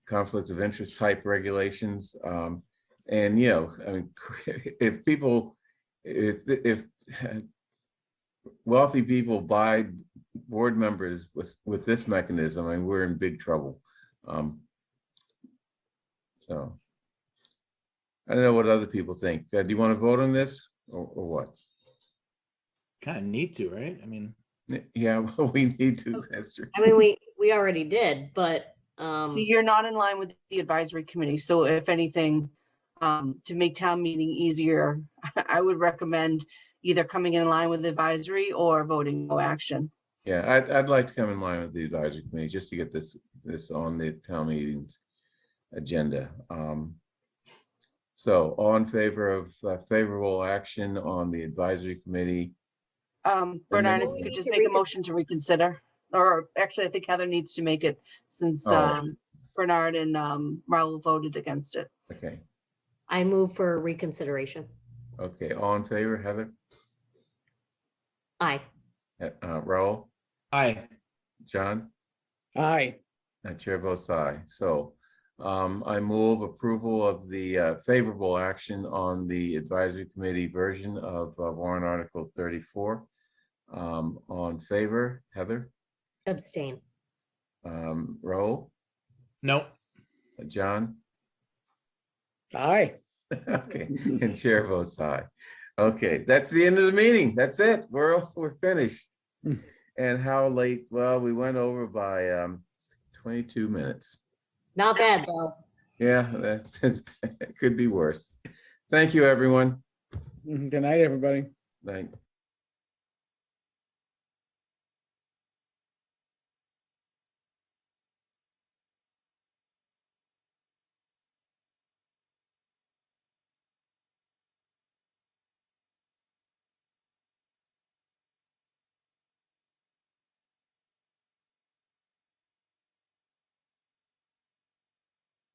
conflict of interest type regulations. Um, and, you know, I mean, if people, if, if wealthy people buy board members with, with this mechanism, I mean, we're in big trouble. Um, so. I don't know what other people think. Uh, Do you want to vote on this or, or what? Kind of need to, right? I mean, Yeah, well, we need to, that's true. I mean, we, we already did, but, So um, you're not in line with the advisory committee, so if anything, um, to make town meeting easier, I would recommend either coming in line with advisory or voting no action. Yeah, I'd, I'd like to come in line with the advisory committee just to get this, this on the town meetings agenda. Um, So all in favor of uh, favorable action on the advisory committee? Um, And then Bernard, if we you could need just to make a recon- motion to reconsider, or actually, I think Heather needs to make it since, Oh. um, Bernard and, um, Raul voted against it. Okay, I move for reconsideration. okay, all in favor, Heather, Aye. Uh, Raul, I, John? aye, Uh, Chair votes aye. So um, I move approval of the uh, favorable action on the advisory committee version of uh, warrant article thirty-four. Um, On favor, Heather, Abstain. um, Raul, no, uh, John? aye. Okay, and chair votes aye. Okay, that's the end of the meeting. That's it. We're, we're finished. And how late? Well, we went over by um, twenty-two minutes. Not bad, though. Yeah, that is, it could be worse. Thank you, everyone. Mm-hmm. Good night, everybody. Thank.